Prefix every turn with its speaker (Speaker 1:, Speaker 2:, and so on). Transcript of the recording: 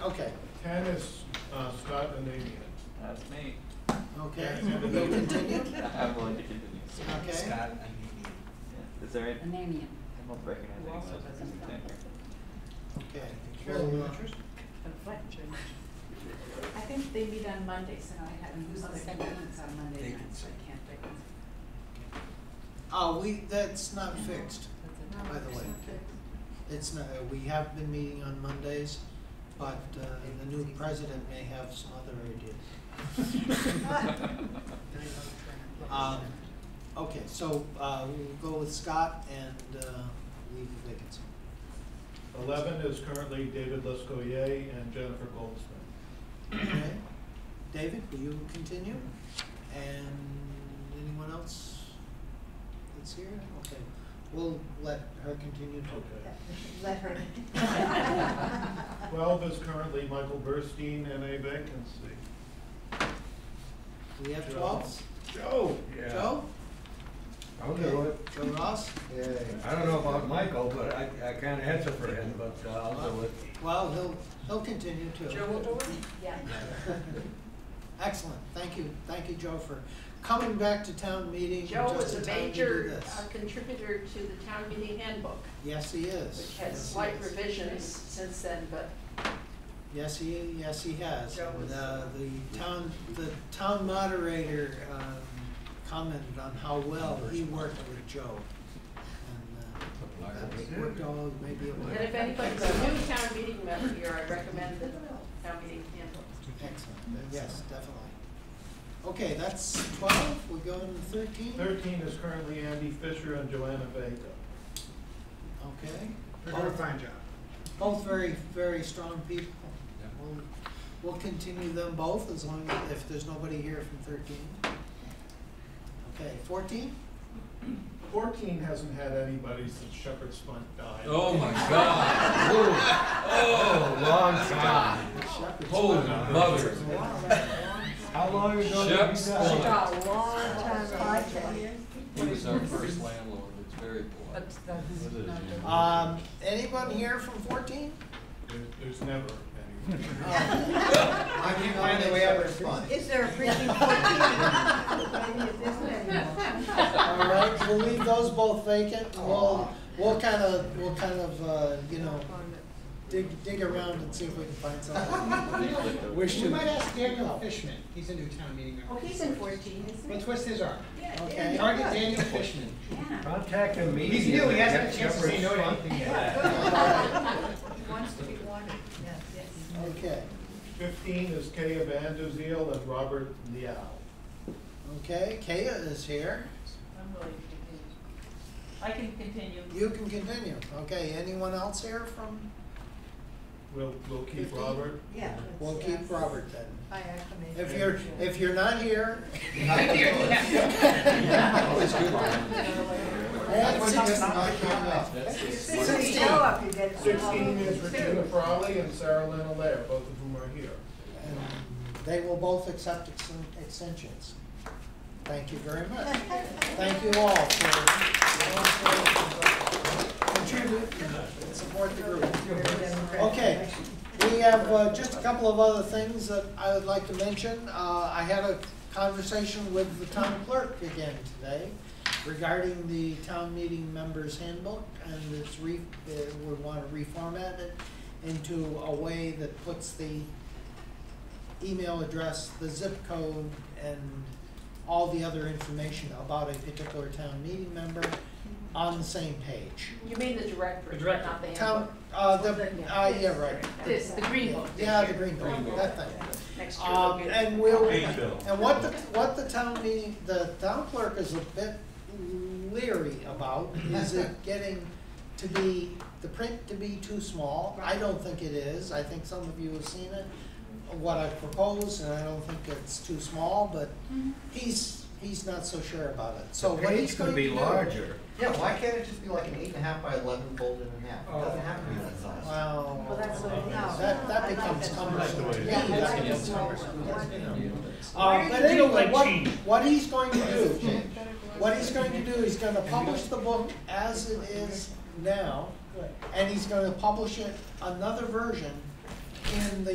Speaker 1: Okay,
Speaker 2: Ten is uh, Scott and Amy.
Speaker 3: That's me.
Speaker 1: okay,
Speaker 2: Yeah.
Speaker 1: we'll continue,
Speaker 3: I'm willing to continue.
Speaker 1: okay?
Speaker 4: Scott,
Speaker 3: Yeah. Is there any,
Speaker 5: Anemian.
Speaker 3: I'm not recognizing
Speaker 6: Who
Speaker 3: those
Speaker 6: also
Speaker 3: as
Speaker 6: doesn't
Speaker 3: a
Speaker 6: know.
Speaker 1: Okay.
Speaker 2: Well, uh,
Speaker 6: Conflict. I think they meet on Mondays and I haven't
Speaker 5: Who's
Speaker 6: used the
Speaker 5: the second one? It's on Monday
Speaker 4: They
Speaker 5: night,
Speaker 4: can
Speaker 5: so I
Speaker 4: say.
Speaker 5: can't pick one.
Speaker 1: Oh, we, that's not fixed,
Speaker 5: That's
Speaker 1: by the way. It's not, uh, we have been meeting on Mondays, but uh, the new president may have some other ideas. Um, Okay, so uh, we'll go with Scott and uh, leave the vacancy.
Speaker 2: Eleven is currently David Lescoyer and Jennifer Goldsmith.
Speaker 1: Okay. David, will you continue? And anyone else that's here? Okay, we'll let her continue to.
Speaker 2: Okay.
Speaker 6: Let her.
Speaker 2: Twelve is currently Michael Burstein and a vacancy.
Speaker 1: We have
Speaker 2: Joe.
Speaker 1: twelve?
Speaker 7: Joe.
Speaker 1: Joe?
Speaker 7: I'll do it.
Speaker 1: Joe Ross?
Speaker 7: I don't know about Michael, but I, I can't answer for him, but uh, I'll do it.
Speaker 1: Well, he'll, he'll continue too.
Speaker 6: Yeah.
Speaker 1: Excellent, thank you, thank you, Joe, for coming back to town meeting
Speaker 8: Joe
Speaker 1: just
Speaker 8: was
Speaker 1: in
Speaker 8: a
Speaker 1: time to do
Speaker 8: major
Speaker 1: this.
Speaker 8: uh, contributor to the town meeting handbook,
Speaker 1: Yes, he is.
Speaker 8: which
Speaker 1: Yes,
Speaker 8: has
Speaker 1: he
Speaker 8: slight
Speaker 1: is.
Speaker 8: revisions since then, but
Speaker 1: Yes, he, yes, he has.
Speaker 8: Joe was-
Speaker 1: And, uh, the town, the town moderator, um, commented on how well he worked with Joe. And, uh, that worked all, maybe it
Speaker 8: and if
Speaker 1: worked.
Speaker 8: anybody's a new town meeting member here, I recommend the town meeting handbook.
Speaker 1: Excellent, yes, definitely. Okay, that's twelve, we go to thirteen?
Speaker 2: Thirteen is currently Andy Fisher and Joanna Vega.
Speaker 1: Okay.
Speaker 4: They're doing a
Speaker 1: Both-
Speaker 4: fine job.
Speaker 1: Both very, very strong people. We'll, we'll continue them both as long as, if there's nobody here from thirteen. Okay, fourteen?
Speaker 2: Fourteen hasn't had anybody since Shepherd Spunt died.
Speaker 7: Oh, my God. Ooh. Oh, long time.
Speaker 1: Shepherd's
Speaker 7: Holy
Speaker 1: Pie.
Speaker 7: mother.
Speaker 4: How long ago did
Speaker 7: Shep's
Speaker 4: he die?
Speaker 7: Pond.
Speaker 9: He was our first landlord, it's very polite.
Speaker 1: Um, anyone here from fourteen?
Speaker 2: There- There's never anyone.
Speaker 1: I can't find a way out of
Speaker 6: Is there a freaking fourteen?
Speaker 1: All right, we'll leave those both vacant, and we'll, we'll kind of, we'll kind of, uh, you know, dig, dig around and see if we can find something.
Speaker 9: Wish
Speaker 4: We might ask Daniel Fishman, he's a new town meeting member.
Speaker 6: Oh, he's in fourteen, isn't
Speaker 4: Let's
Speaker 6: he?
Speaker 4: twist his arm.
Speaker 1: Okay.
Speaker 4: Target Daniel Fishman.
Speaker 6: Yeah.
Speaker 7: Contact him immediately.
Speaker 4: He's new, he hasn't had a chance to say no to
Speaker 7: Shepherd
Speaker 4: anything yet.
Speaker 7: Spunt.
Speaker 6: He wants to be wanted, yes, yes.
Speaker 1: Okay,
Speaker 2: Fifteen is Kay Abanduziel and Robert Liao.
Speaker 1: okay, Kaya is here.
Speaker 8: I'm willing to
Speaker 6: I can continue.
Speaker 1: You can continue. Okay, anyone else here from,
Speaker 2: We'll, we'll keep
Speaker 1: Fifteen?
Speaker 2: Robert.
Speaker 6: Yeah.
Speaker 1: we'll keep Robert then.
Speaker 6: I acclimate.
Speaker 1: If you're, if you're not here.
Speaker 9: Always good
Speaker 1: and sixteen-
Speaker 9: That's his-
Speaker 1: Sixteen.
Speaker 6: up, you get.
Speaker 2: Sixteen is Regina Frawley and Sarah Lynn Allaire, both of whom are here.
Speaker 1: And They will both accept exten- extensions. Thank you very much. Thank you all for contribute, support the group. Okay, we have uh, just a couple of other things that I would like to mention. Uh, I had a conversation with the town clerk again today regarding the town meeting members handbook and it's re, uh, we want to reformat it into a way that puts the email address, the zip code, and all the other information about a particular town meeting member on the same page.
Speaker 8: continue. You mean the directory,
Speaker 4: The directory.
Speaker 8: not the
Speaker 1: Town,
Speaker 8: handbook?
Speaker 1: uh, the, uh, yeah, right.
Speaker 8: This, the green book. this
Speaker 1: Yeah, the green
Speaker 8: year.
Speaker 1: book, that thing.
Speaker 8: Next year we'll
Speaker 1: Um,
Speaker 8: get.
Speaker 1: and we'll,
Speaker 2: Hey, Bill.
Speaker 1: and what the, what the town meeting, the town clerk is a bit leery about, is it getting to be, the print to be too small? I don't think it is, I think some of you have seen it, what I propose, and I don't think it's too small, but
Speaker 8: Mm-hmm.
Speaker 1: he's, he's not so sure about it, so what he's
Speaker 7: Page
Speaker 1: going
Speaker 7: could
Speaker 1: to
Speaker 7: be
Speaker 1: do-
Speaker 7: larger.
Speaker 10: Yeah, why can't it just be like an eight and a half by eleven folded in half? It doesn't have to be that size.
Speaker 1: Wow.
Speaker 6: Well, that's what, no.
Speaker 1: That, that
Speaker 6: I like
Speaker 1: becomes
Speaker 6: that.
Speaker 1: cumbersome.
Speaker 10: That's the way it
Speaker 1: Yeah,
Speaker 10: is.
Speaker 1: that
Speaker 6: I like
Speaker 1: becomes
Speaker 6: that.
Speaker 1: cumbersome. Uh,
Speaker 6: Why did
Speaker 1: but
Speaker 6: you do
Speaker 1: anyway,
Speaker 6: like
Speaker 1: what,
Speaker 6: change?
Speaker 1: what he's going to do, what he's going to do, he's gonna publish the book as it is now, and he's gonna publish it, another version, in the